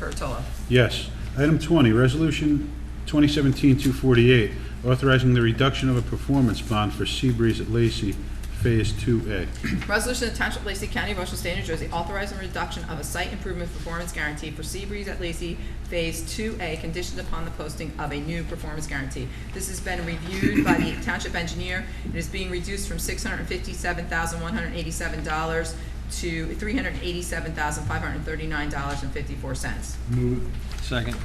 Curatola. Yes. Item 20, Resolution 2017-248, authorizing the reduction of a performance bond for Seabreeze at Lacey, Phase 2A. Resolution to Township of Lacey County, Ocean State, New Jersey, authorizing reduction of a site improvement performance guarantee for Seabreeze at Lacey Phase 2A conditioned upon the posting of a new performance guarantee. This has been reviewed by the township engineer. It is being reduced from $657,187 to $387,539.54. Move it. Second.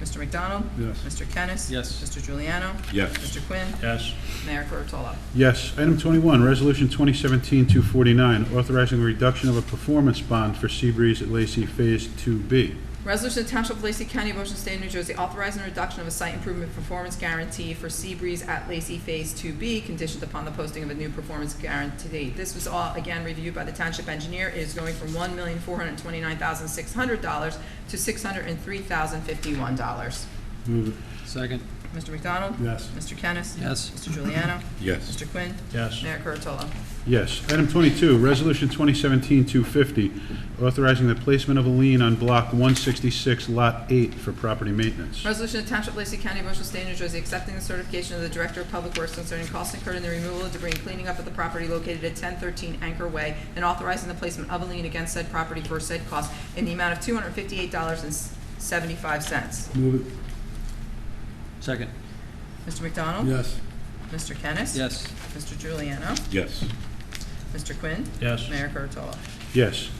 Mr. McDonald? Yes. Mr. Kennis? Yes. Mr. Juliano? Yes. Mr. Quinn? Yes. Mayor Kurtolo? Yes. Item 21, Resolution 2017-249, authorizing the reduction of a performance bond for Seabreeze at Lacey, Phase 2B. Resolution to Township of Lacey County, Ocean State, New Jersey, authorizing the reduction of a site improvement performance guarantee for Seabreeze at Lacey Phase 2B, conditioned upon the posting of a new performance guarantee. This was all, again, reviewed by the township engineer. It is going from $1,429,600 to $603,051. Move it. Second. Mr. McDonald? Yes. Mr. Kennis? Yes. Mr. Juliano? Yes. Mr. Quinn? Yes. Mayor Kurtolo? Yes. Item 22, Resolution 2017-250, authorizing the placement of a lien on Block 166, Lot 8 for property maintenance. Resolution to Township of Lacey County, Ocean State, New Jersey, accepting the certification of the Director of Public Works concerning costs incurred in the removal of debris and cleaning up of the property located at ten thirteen Anchor Way, and authorizing the placement of a lien against said property for said cost in the amount of two hundred fifty-eight dollars and seventy-five cents. Move it. Second. Mr. McDonald? Yes. Mr. Kennis? Yes. Mr. Juliano? Yes. Mr. Quinn? Yes. Mayor Kurtolo? Yes.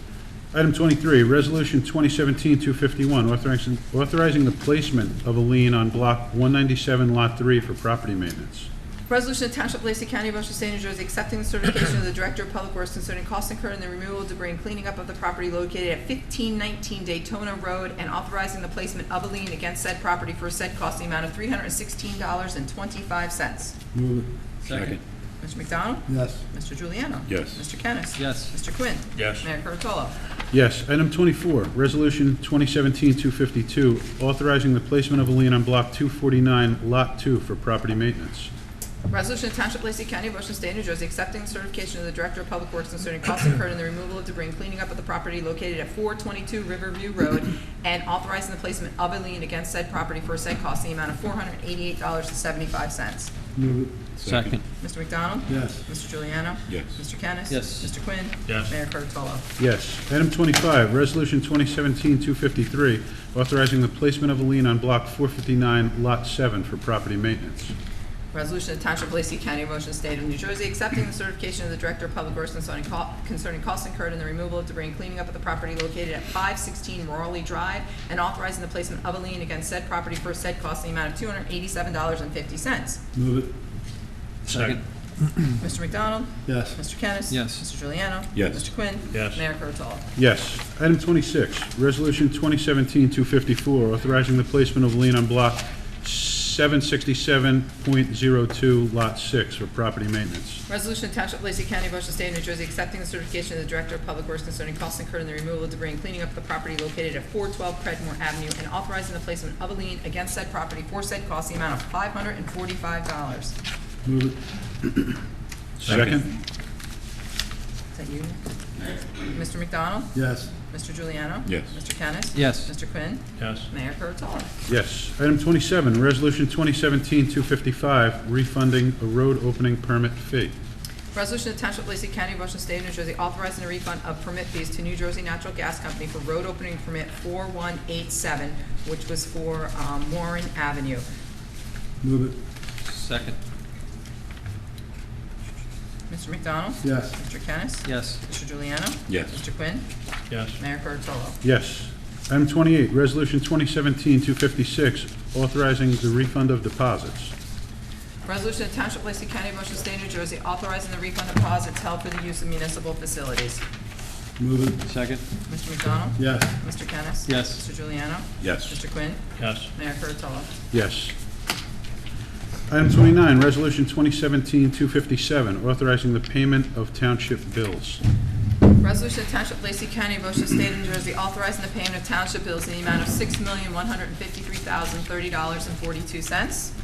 Item 23, Resolution 2017-251, authorizing authorizing the placement of a lien on Block 197, Lot 3 for property maintenance. Resolution to Township of Lacey County, Ocean State, New Jersey, accepting the certification of the Director of Public Works concerning costs incurred in the removal of debris and cleaning up of the property located at fifteen nineteen Daytona Road and authorizing the placement of a lien against said property for said cost in the amount of three hundred and sixteen dollars and twenty-five cents. Move Second. Mr. McDonald? Yes. Mr. Juliano? Yes. Mr. Kennis? Yes. Mr. Quinn? Yes. Mayor Kurtolo? Yes. Item 24, Resolution 2017-252, authorizing the placement of a lien on Block 249, Lot 2 for property maintenance. Resolution to Township of Lacey County, Ocean State, New Jersey, accepting the certification of the Director of Public Works concerning costs incurred in the removal of debris and cleaning up of the property located at four twenty-two Riverview Road, and authorizing the placement of a lien against said property for said cost in the amount of four hundred and eighty-eight dollars and seventy-five cents. Second. Mr. McDonald? Yes. Mr. Juliano? Yes. Mr. Kennis? Yes. Mr. Quinn? Yes. Mayor Kurtolo? Yes. Item 25, Resolution 2017-253, authorizing the placement of a lien on Block 459, Lot 7 for property maintenance. Resolution of Township of Lacey County, Ocean State of New Jersey, accepting the certification of the Director of Public Works concerning co- concerning costs incurred in the removal of debris and cleaning up of the property located at five sixteen Morley Drive, and authorizing the placement of a lien against said property for said cost in the amount of two hundred eighty-seven dollars and fifty cents. Move it. Second. Mr. McDonald? Hmm. Yes. Mr. Kennis? Yes. Mr. Juliano? Yes. Mr. Quinn? Yes. Mayor Kurtolo? Yes. Item 26, Resolution 2017-254, authorizing the placement of lien on Block 767.02, Lot 6 for property maintenance. Resolution to Township of Lacey County, Ocean State, New Jersey, accepting the certification of the Director of Public Works concerning costs incurred in the removal of debris and cleaning up the property located at four twelve Predmore Avenue, and authorizing the placement of a lien against said property for said cost, the amount of five hundred and forty-five dollars. Second? Is that you? Mr. McDonald? Yes. Mr. Juliano? Yes. Mr. Kennis? Yes. Mr. Quinn? Yes. Mayor Kurtolo? Yes. Item 27, Resolution 2017-255, refunding a road opening permit fee. Resolution to Township of Lacey County, Ocean State, New Jersey, authorizing a refund of permit fees to New Jersey Natural Gas Company for road opening permit 4187, which was for um, Warren Avenue. Move it. Second. Mr. McDonald? Yes. Mr. Kennis? Yes. Mr. Juliano? Yes. Mr. Quinn? Yes. Mayor Kurtolo? Yes. Item 28, Resolution 2017-256, authorizing the refund of deposits. Resolution of Township of Lacey County, Motion State, New Jersey, authorizing the refund of deposits held for the use of municipal facilities. Move it. Second. Mr. McDonald? Yes. Mr. Kennis? Yes. Mr. Juliano? Yes. Mr. Quinn? Yes. Mayor Kurtolo? Yes. Item 29, Resolution 2017-257, authorizing the payment of township bills. Resolution of Township of Lacey County, Motion State, New Jersey, authorizing the payment of township bills in the amount of six million, one hundred and fifty-three thousand, thirty dollars and forty-two cents.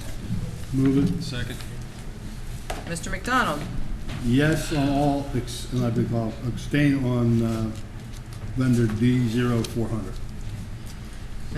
Move it. Second. Mr. McDonald? Yes on all, ex- and I beg your pardon, abstain on uh, vendor D zero four hundred.